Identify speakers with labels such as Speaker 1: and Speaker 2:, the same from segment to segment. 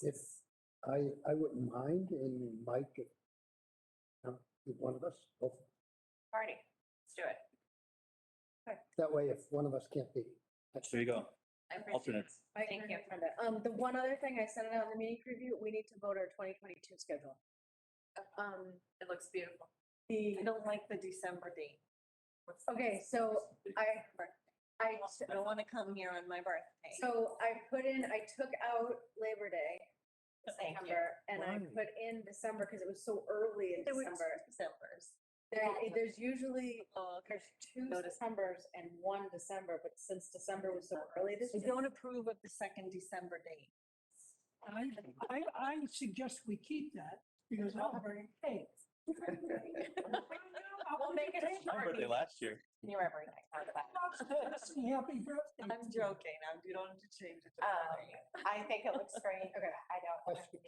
Speaker 1: If, I, I wouldn't mind, and Mike, if, um, if one of us, both-
Speaker 2: Party, let's do it.
Speaker 1: that way if one of us can't be,
Speaker 3: There you go.
Speaker 2: I appreciate
Speaker 3: Alternate.
Speaker 2: it. Thank you.
Speaker 4: Brenda. Um, the one other thing I sent it out in the meeting preview, we need to vote our twenty twenty-two schedule. Um,
Speaker 2: It looks beautiful.
Speaker 4: the,
Speaker 5: I don't like the December date. What's the-
Speaker 4: okay, so I,
Speaker 5: I
Speaker 4: I,
Speaker 5: don't want to come here on my birthday.
Speaker 4: so I put in, I took out Labor Day,
Speaker 5: Thank you.
Speaker 4: September, and I
Speaker 1: Why?
Speaker 4: put in December because it was so early in
Speaker 5: There were
Speaker 4: December.
Speaker 5: two Decembers.
Speaker 4: There,
Speaker 5: Yeah.
Speaker 4: there's usually,
Speaker 5: Oh, okay.
Speaker 4: there's two
Speaker 5: Notice.
Speaker 4: Decembers and one December, but since December was so early this
Speaker 5: I
Speaker 4: year.
Speaker 5: don't approve of the second December date.
Speaker 6: I, I, I suggest we keep that because I'll bring cake.
Speaker 5: We'll make it a
Speaker 3: My
Speaker 5: short
Speaker 3: birthday
Speaker 5: meeting.
Speaker 3: last year.
Speaker 5: You're every night. How about that?
Speaker 6: Happy birthday.
Speaker 5: I'm joking. I'm, you don't have to change it. to
Speaker 2: Um,
Speaker 5: birthday.
Speaker 2: I think it looks great. Okay. I don't. have
Speaker 1: Question.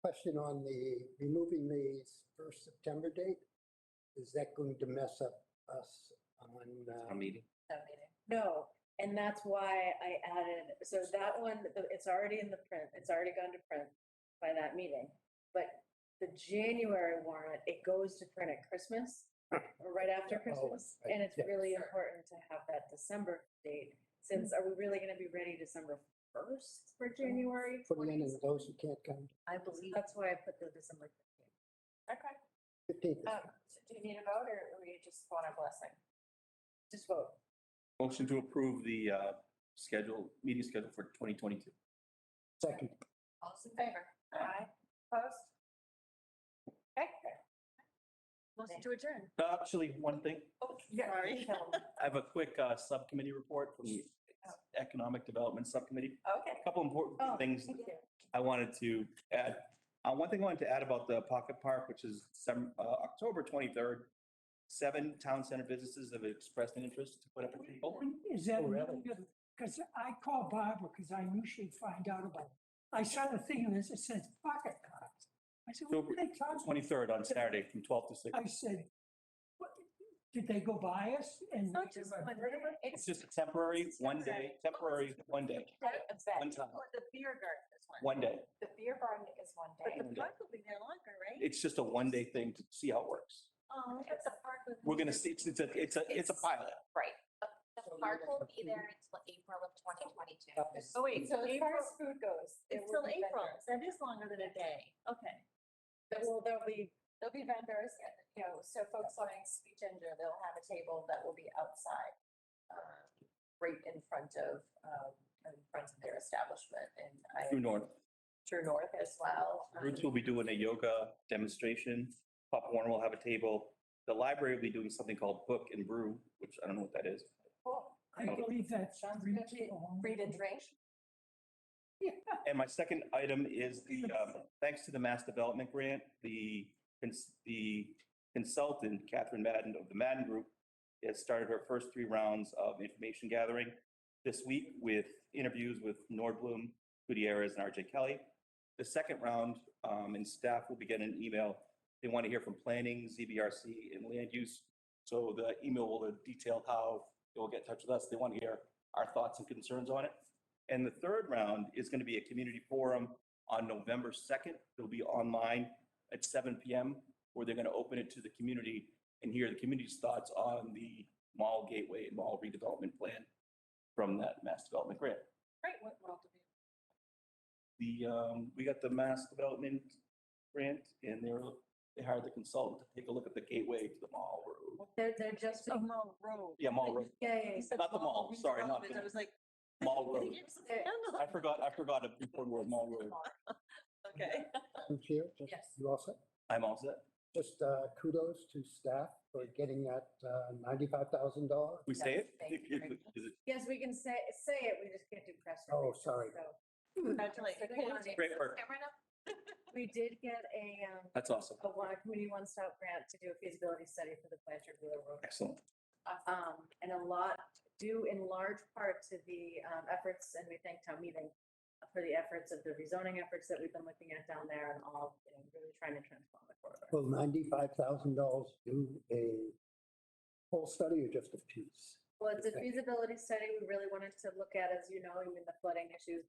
Speaker 1: question on the, removing the first September date, is that going to mess up us on, uh,
Speaker 3: Town meeting.
Speaker 2: a meeting.
Speaker 4: No, and that's why I added, so that one, the- it's already in the print, it's already gone to print by that meeting. But the January warrant, it goes to print at Christmas, or right after
Speaker 1: Yeah, oh,
Speaker 4: Christmas.
Speaker 1: right,
Speaker 4: And it's
Speaker 1: yeah.
Speaker 4: really important to have that December date, since are we really gonna be ready December first for January?
Speaker 1: putting in
Speaker 4: 20s?
Speaker 1: and those who can't come,
Speaker 5: I believe.
Speaker 4: That's why I put the December. 15th.
Speaker 2: Okay.
Speaker 1: fifteenth?
Speaker 4: Uh,
Speaker 2: Um, so do you need a vote or do you just want a blessing?
Speaker 4: Just vote.
Speaker 3: Motion to approve the uh, schedule, meeting schedule for 2022.
Speaker 1: Second,
Speaker 2: All those in favor? Aye. Opposed? Okay.
Speaker 5: Motion to adjourn.
Speaker 3: Uh, Actually, one thing,
Speaker 2: Oh,
Speaker 5: Sorry.
Speaker 3: I have a quick uh, subcommittee report from the Economic Development Subcommittee.
Speaker 2: Okay.
Speaker 3: A couple important
Speaker 4: Oh,
Speaker 3: things I wanted to add. Uh, One thing I wanted to add about the Pocket Park, which is some, uh, October 23rd, seven town center businesses have expressed an interest to put up a table.
Speaker 6: Is that,
Speaker 1: Oh, really?
Speaker 6: because I called Barbara because I knew she'd find out about it. I saw the thing and it says pocket cards. I said, what
Speaker 3: October
Speaker 6: are they talking?
Speaker 3: 23rd on Saturday from 12 to 6.
Speaker 6: I said, what, did they go by us? And
Speaker 5: Not just one day.
Speaker 3: It's just a temporary, one day, temporary, one day,
Speaker 2: That
Speaker 3: one
Speaker 2: event,
Speaker 3: time,
Speaker 5: Or the beer garden is one.
Speaker 3: one day.
Speaker 2: the beer barn is one day.
Speaker 5: But the park will be there longer, right?
Speaker 3: It's just a one-day thing to see how it works.
Speaker 5: Oh,
Speaker 7: Um,
Speaker 5: that's a park. with-
Speaker 3: We're gonna see, it's, it's a, it's a, it's a pilot.
Speaker 7: The
Speaker 1: So you're
Speaker 7: park
Speaker 1: gonna
Speaker 7: will be
Speaker 1: approve-
Speaker 7: there until April of twenty twenty-two.
Speaker 1: that was-
Speaker 5: Oh, wait,
Speaker 2: So
Speaker 5: so
Speaker 2: as far
Speaker 5: April,
Speaker 2: as food goes. there
Speaker 5: it's
Speaker 2: will
Speaker 5: till
Speaker 2: be
Speaker 5: April.
Speaker 2: vendors.
Speaker 5: That is longer than a day. Okay.
Speaker 4: Well, there'll be,
Speaker 2: There'll be vendors, and, you know, so folks wanting sweet ginger, they'll have a table that will be outside, uh, right in front of, um, in front of their establishment and I,
Speaker 3: True North.
Speaker 2: True North as well. um,
Speaker 3: Roots will be doing a yoga demonstration. Pop Warner will have a table. The library will be doing something called Book and Brew, which I don't know what that is.
Speaker 2: cool.
Speaker 6: I
Speaker 1: Oh.
Speaker 6: believe that's.
Speaker 2: Sounds
Speaker 6: three
Speaker 2: good.
Speaker 6: people.
Speaker 2: Read and drink.
Speaker 3: And my second item is the, um, thanks to the Mass Development Grant, the, cons- the consultant, Catherine Madden of the Madden Group, has started her first three rounds of information gathering this week with interviews with Nordblum, Gutierrez, and RJ Kelly. The second round, um, and staff will be getting an email. They want to hear from planning, ZBRC, and land use. So the email will detail how they will get in touch with us. They want to hear our thoughts and concerns on it. And the third round is going to be a community forum on November 2nd. It'll be online at 7 PM where they're going to open it to the community and hear the community's thoughts on the mall gateway and mall redevelopment plan from that mass development grant.
Speaker 5: Great. What world do we?
Speaker 3: The, um, we got the mass development grant and they're, they hired the consultant to take a look at the gateway to the mall road.
Speaker 4: they're, they're just,
Speaker 5: Oh, Mall Road.
Speaker 3: Yeah, mall road,
Speaker 4: yeah, yeah,
Speaker 5: You said
Speaker 3: Not the mall, sorry, not
Speaker 5: redevelopment.
Speaker 3: the-
Speaker 5: I was like.
Speaker 3: mall road.
Speaker 5: it's the handle.
Speaker 3: I forgot, I forgot a important word, mall road.
Speaker 5: Okay.
Speaker 1: I'm here, just-
Speaker 2: Yes.
Speaker 1: you all set?
Speaker 3: I'm all set.
Speaker 1: Just uh, kudos to staff for getting that uh, $95,000.
Speaker 3: We say it?
Speaker 2: Yes, thank you.
Speaker 3: Is it?
Speaker 4: yes, we can say, say it, we just can't do press.
Speaker 1: Oh,
Speaker 4: releases,
Speaker 1: sorry.
Speaker 4: so.
Speaker 5: Congratulations.
Speaker 3: Great work.
Speaker 7: Camera now?
Speaker 4: We did get a, um,
Speaker 3: That's awesome.
Speaker 4: a one, a community one-stop grant to do a feasibility study for the Blanchard Wheeler Road.
Speaker 3: Excellent.
Speaker 4: Um, and a lot due in large part to the, um, efforts, and we thank town meeting for the efforts of the rezoning efforts that we've been looking at down there and all, you know, really trying to transform the corridor.
Speaker 1: Will $95,000 do a whole study or just a piece?
Speaker 4: Well, it's a
Speaker 1: Okay.
Speaker 4: feasibility study. We really wanted to look at, as you know, I mean, the flooding issues,